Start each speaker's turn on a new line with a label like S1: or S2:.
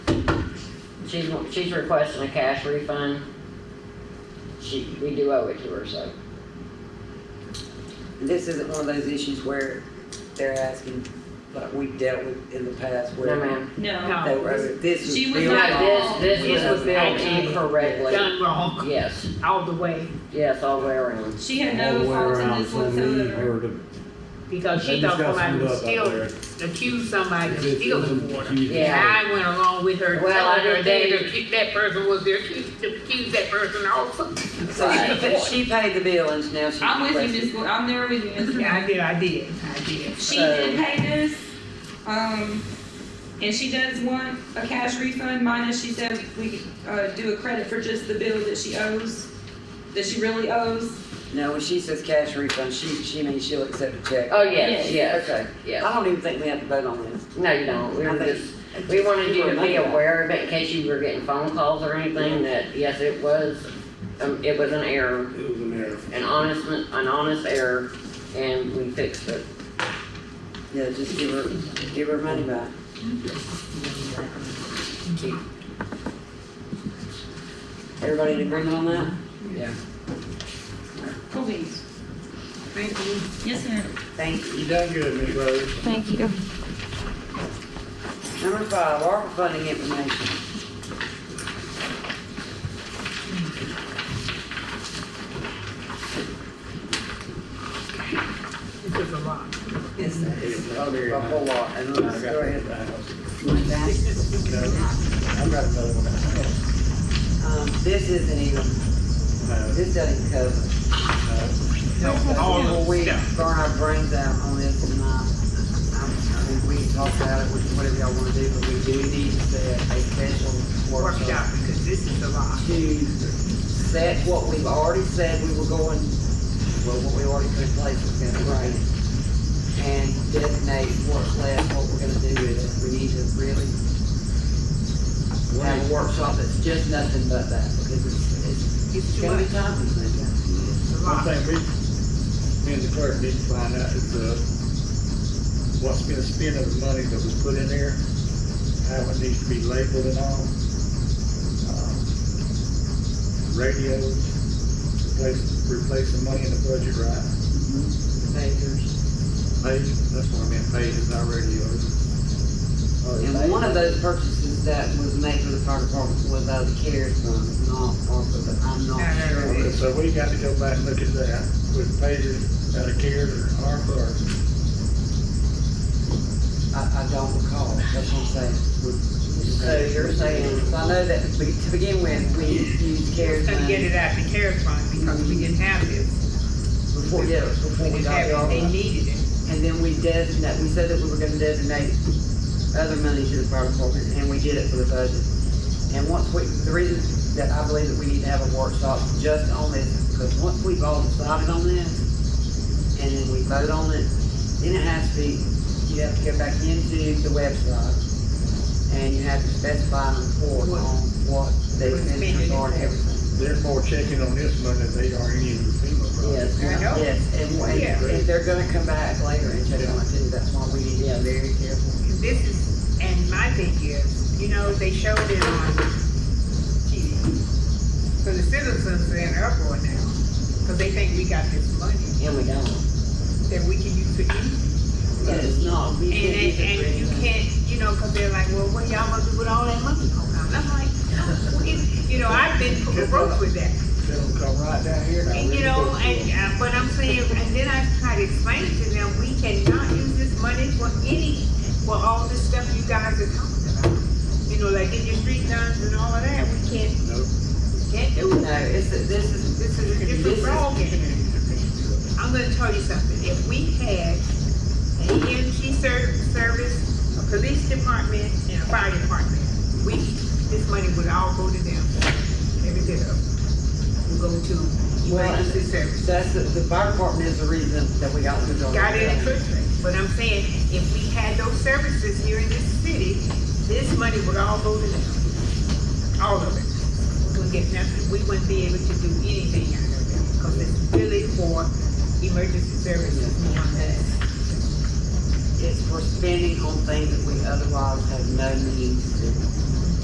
S1: she's, she's requesting a cash refund. She, we do owe it to her, so.
S2: This isn't one of those issues where they're asking, like we've dealt with in the past
S1: No,
S2: where
S1: ma'am.
S3: No,
S2: they were, this was.
S3: She was
S2: built
S3: not-
S2: on-
S1: No, this, this was billed
S2: Yeah.
S1: incorrectly.
S3: Done
S4: wrong
S1: Yes,
S4: all the way
S1: yes, all the way around.
S3: she had
S5: all
S3: no
S5: the way
S3: fault in
S5: around
S3: this
S5: from me
S3: whatsoever.
S5: or to.
S4: because Oh, she
S5: They
S4: thought
S5: just got
S4: somebody
S5: screwed
S4: was
S5: up out there.
S4: stealing, accused somebody of
S5: It
S4: stealing
S5: wasn't
S4: water.
S5: accused.
S4: And
S1: Yeah.
S4: I went along with her,
S1: Well, I
S4: telling her
S1: didn't
S4: that
S1: think-
S4: the- that person was there, she accused that person also.
S2: So she, but she paid the bill and now she's.
S3: I'm with you,
S2: requesting-
S3: Miss, Gor- I'm there with you, Miss.
S4: Yeah, I
S3: Gordon.
S4: did, I did, I did.
S3: She
S2: So-
S3: did pay this, um, and she does want a cash refund minus, she said we, uh, do a credit for just the bill that she owes, that she really owes.
S2: No, when she says cash refund, she, she means she'll accept a check.
S1: Oh, yes,
S3: Yes.
S1: yes,
S2: Okay.
S1: yes.
S2: I don't even think we have to vote on this.
S1: No, you don't. We
S2: I
S1: were
S2: think-
S1: just, we wanted you to be aware of it in case you were getting phone calls or anything that, yes, it was, um, it was an error,
S5: It was an error.
S1: an honest, an honest error, and we fixed it.
S2: Yeah, just give her, give her money back. Everybody in agreement on that?
S3: Please. Thank you. Yes, ma'am.
S2: Thank you.
S5: You done good, Miss Rose.
S6: Thank you.
S2: Number five, ARPA funding information.
S4: It took a lot.
S2: Yes, that is a a whole lot, and
S5: I
S2: let's
S5: got
S2: go ahead.
S5: that.
S2: Um,
S5: I got another one.
S2: this isn't even,
S5: No,
S2: this doesn't cover.
S5: no.
S4: all
S2: Well,
S4: of
S2: we
S4: them.
S2: burn our brains out on this tonight. Um, I mean, we can talk about it, we- whatever y'all wanna do, but we do need to set a special
S4: Workshop,
S2: workshop
S4: because this is a lot.
S2: to set what we've already said we were going, well, what we already put in place was gonna write. And designate more or less what we're gonna do with it. We need to really have a workshop that's just nothing but that, because it's, it's
S4: It's too
S2: gonna
S4: much,
S2: be time consuming.
S4: it's a
S5: One
S4: lot.
S5: thing we, me and the clerk need to find out is, uh, what's been spent of the money that was put in there, how it needs to be labeled and all. Um, Radios, replace, replace the money in the budget, right?
S2: Majors.
S5: Page, that's what I meant, page is not radios.
S2: Oh, And one of those purchases that was made for the fire department was out of the CARES fund, it's not, ARPA, but I'm
S4: No,
S2: not
S4: no, no,
S2: sure.
S5: Okay, So we got to go back and look at that, with pages out of care or ARPA or
S2: I, I don't recall, that's what I'm saying. So you're saying, so I know that to be- to begin with, we used CARES
S4: Couldn't get
S2: money
S4: it out of the care fund because we didn't have this,
S2: before, yeah, before we
S4: we didn't
S2: got
S4: have
S2: the
S4: it, they
S2: ARPA.
S4: needed it.
S2: And then we designate, we said that we were gonna designate other money to the fire department, and we did it for the budget. And once we, the reason that I believe that we need to have a workshop just on this, because once we've all decided on this, and then we vote on it, then it has to be, you have to go back into the website, and you have to specify and report on what the expenses are and everything.
S5: they're more checking on this money than they are any of the FEMA projects.
S1: Yes.
S4: I know.
S2: Yes, and,
S4: Yeah.
S2: and if they're gonna come back later and check on it too, that's why we need to be very careful.
S4: This is, and my thing is, you know, they showed it on TV. So the citizens are in uproar now, because they think we got this money
S1: And we don't.
S4: that we can use to eat.
S2: But it's not, we
S4: And,
S2: can't use
S4: and,
S2: it for
S4: and you
S2: anything.
S4: can't, you know, because they're like, well, what y'all gonna do with all that money? And I'm like, no, it's- you know, I've been broke with that.
S5: Tell them come right down here. now.
S4: And you know, and, uh, but I'm saying, and then I try to explain to them, we cannot use this money for any, for all this stuff you guys are talking about. You know, like in your street guns and all of that, we can't,
S5: Nope.
S4: can't do
S2: No,
S4: that.
S2: it's, this is,
S4: This is a
S2: This
S4: different
S2: is-
S4: ballgame. I'm gonna tell you something, if we had an EMT ser- service, a police department, and a fire department, we, this money would all go to them, every bit of it. Would go to
S2: Well,
S4: emergency service.
S2: that's, the, the fire department is the reason that we got the dog.
S4: got it in Christmas. But I'm saying, if we had those services here in this city, this money would all go to them. All of it. We wouldn't get nothing, we wouldn't be able to do anything out of them, because it's really for emergency services more than that.
S2: It's for spending on things that we otherwise have no means to.